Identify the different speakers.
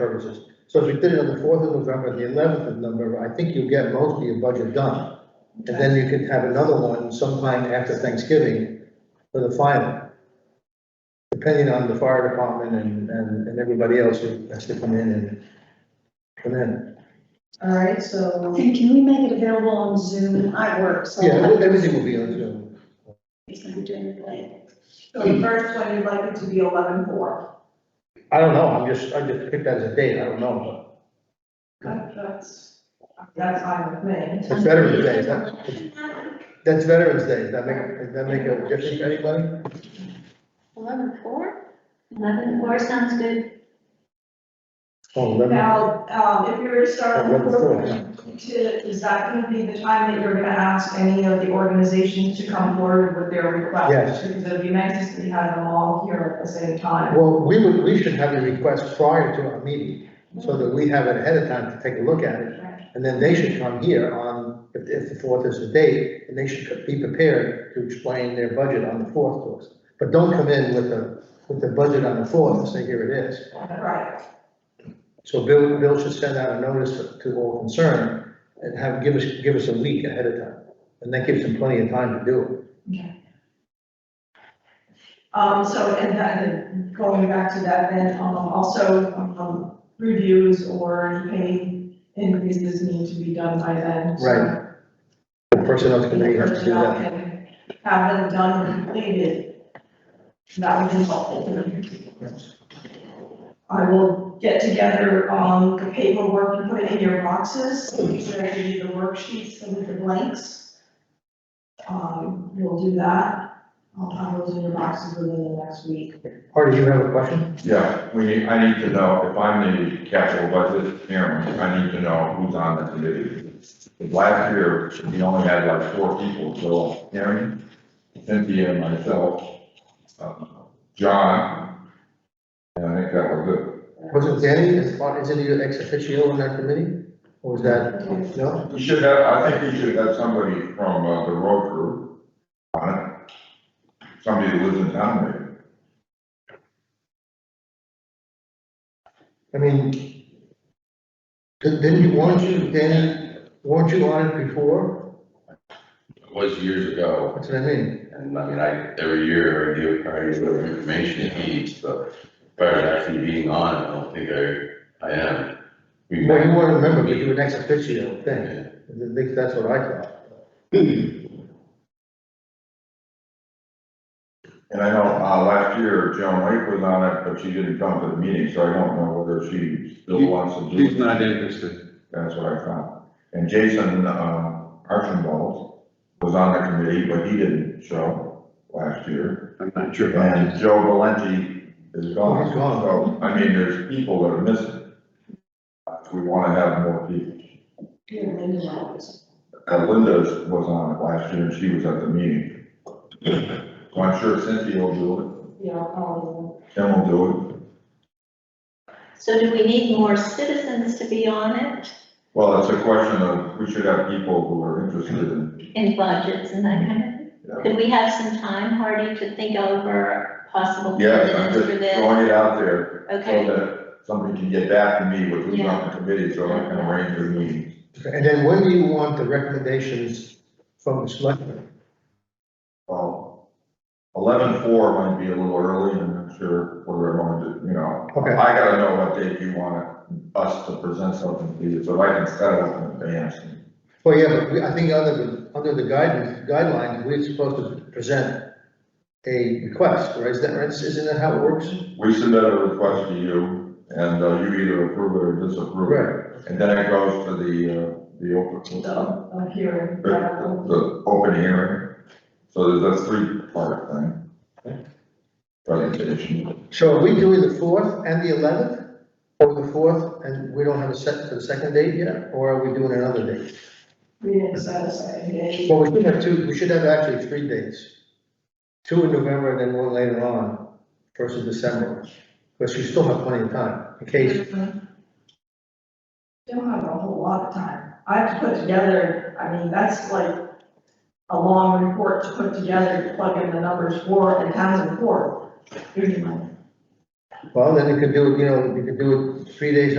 Speaker 1: purposes. So if you did it on the fourth of November, the eleventh of November, I think you'll get most of your budget done. And then you could have another one sometime after Thanksgiving for the final. Depending on the fire department and, and, and everybody else who has to come in and come in.
Speaker 2: All right, so,
Speaker 3: And can we make it available on Zoom? I work, so.
Speaker 1: Yeah, everything will be on Zoom.
Speaker 3: He's gonna be doing it late.
Speaker 2: so the first one, you'd like it to be eleven four.
Speaker 1: I don't know, I'm just, I just picked that as a date, I don't know,
Speaker 2: That's, that's fine with me.
Speaker 1: but it's Veterans Day, that- that's Veterans Day, does that make, does that make a difference to anybody?
Speaker 4: Eleven four? Eleven four sounds good.
Speaker 1: Oh, eleven,
Speaker 2: Now, um, if you were to start
Speaker 1: eleven
Speaker 2: with
Speaker 1: four,
Speaker 2: four,
Speaker 1: yeah.
Speaker 2: to, is that gonna be the time that you're gonna ask any of the organizations to come forward with their requests?
Speaker 1: Yes.
Speaker 2: Because it'd be nice if we had them all here at the same time.
Speaker 1: Well, we would, we should have a request prior to our meeting, so that we have it ahead of time to take a look at it.
Speaker 2: Right.
Speaker 1: And then they should come here on, if, if the fourth is the date, and they should be prepared to explain their budget on the fourth to us. But don't come in with the, with the budget on the fourth and say, here it is.
Speaker 2: Right,
Speaker 1: So Bill, Bill should send out a notice to all concerned and have, give us, give us a week ahead of time. And that gives them plenty of time to do it.
Speaker 2: um, so, and then, going back to that, then, um, also, um, reviews or pay increases need to be done by then. so-
Speaker 1: Right. The personnel
Speaker 2: and
Speaker 1: committee
Speaker 2: the
Speaker 1: has to do
Speaker 2: personnel
Speaker 1: that.
Speaker 2: can have them done and completed. That would be helpful. I will get together, um, the paperwork and put it in your boxes, so I give you the worksheets and with the blanks. Um, we'll do that, I'll have those in your boxes within the next week.
Speaker 1: Artie, you have a question?
Speaker 5: Yeah, we, I need to know, if I'm the capital budget chairman, I need to know who's on the committee. Because Last year, we only had like four people, so Aaron, Cynthia, myself, um, John, and I think that was it.
Speaker 1: Wasn't Danny, is, isn't he ex officio on that committee? Or was that, no?
Speaker 5: We should have, I think we should have somebody from uh, the road crew on it. Somebody who lives in town, maybe.
Speaker 1: I mean, di- didn't you, weren't you, Danny, weren't you on it before?
Speaker 6: It was years ago,
Speaker 1: That's what I mean.
Speaker 6: and I mean, I, every year, I give, I give whatever information it needs, but as far as actually being on, I don't think I, I am. We
Speaker 1: Well, you
Speaker 6: met,
Speaker 1: weren't a member, but you were an ex officio thing.
Speaker 6: and
Speaker 1: I think that's what I thought.
Speaker 5: And I know, uh, last year, Joan Lake was on it, but she didn't come to the meeting, so I don't know whether she still wants to do it.
Speaker 7: He's not interested.
Speaker 5: That's what I found. And Jason, um, Archibald was on the committee, but he didn't show last year.
Speaker 7: I'm not sure about
Speaker 5: And
Speaker 7: this.
Speaker 5: Joe Valenti is
Speaker 1: Oh,
Speaker 5: gone.
Speaker 1: he's gone.
Speaker 5: So, I mean, there's people that are missing. We wanna have more people.
Speaker 2: Here, Linda, Roberts.
Speaker 5: Uh, Linda was on it last year, and she was at the meeting. So I'm sure Cynthia will do
Speaker 2: you know, um,
Speaker 5: it, Tim will do it.
Speaker 4: So do we need more citizens to be on it
Speaker 5: Well, it's a question of, we should have people who are interested in,
Speaker 4: in budgets and that kind of thing?
Speaker 5: yeah.
Speaker 4: Could we have some time, Hardy, to think over possible
Speaker 5: Yes, I'm
Speaker 4: candidates
Speaker 5: just
Speaker 4: for this?
Speaker 5: throwing it out there. so
Speaker 4: Okay,
Speaker 5: that somebody can get back to me with who's on the committee, so I can arrange their meetings.
Speaker 1: And then when do you want the recommendations from the selectmen?
Speaker 5: Well, eleven four might be a little early, I'm not sure whether I want to, you know.
Speaker 1: Okay,
Speaker 5: I gotta know what date you want us to present something to you, so I can set it up in advance.
Speaker 1: well, yeah, but we- I think under the, under the guidance, guidelines, we're supposed to present a request, right? Is that right? Isn't that how it works?
Speaker 5: We submit a request to you, and uh, you either approve it or disapprove it.
Speaker 1: Right.
Speaker 5: And then it goes to the, uh, the open,
Speaker 2: so, uh, here.
Speaker 5: the, the open hearing. So there's a three-part thing. Presentation.
Speaker 1: So are we doing the fourth and the eleventh? Or the fourth, and we don't have a set for the second date yet, or are we doing another date?
Speaker 2: We didn't set aside a day.
Speaker 1: Well, we should have two, we should have actually three dates. Two in November and then one later on, first of December. Because you still have plenty of time, in case,
Speaker 2: Don't have a whole lot of time. I have to put together, I mean, that's like a long report to put together, to plug in the numbers for the town's report.
Speaker 1: Well, then you could do, it. you know, you could do it three days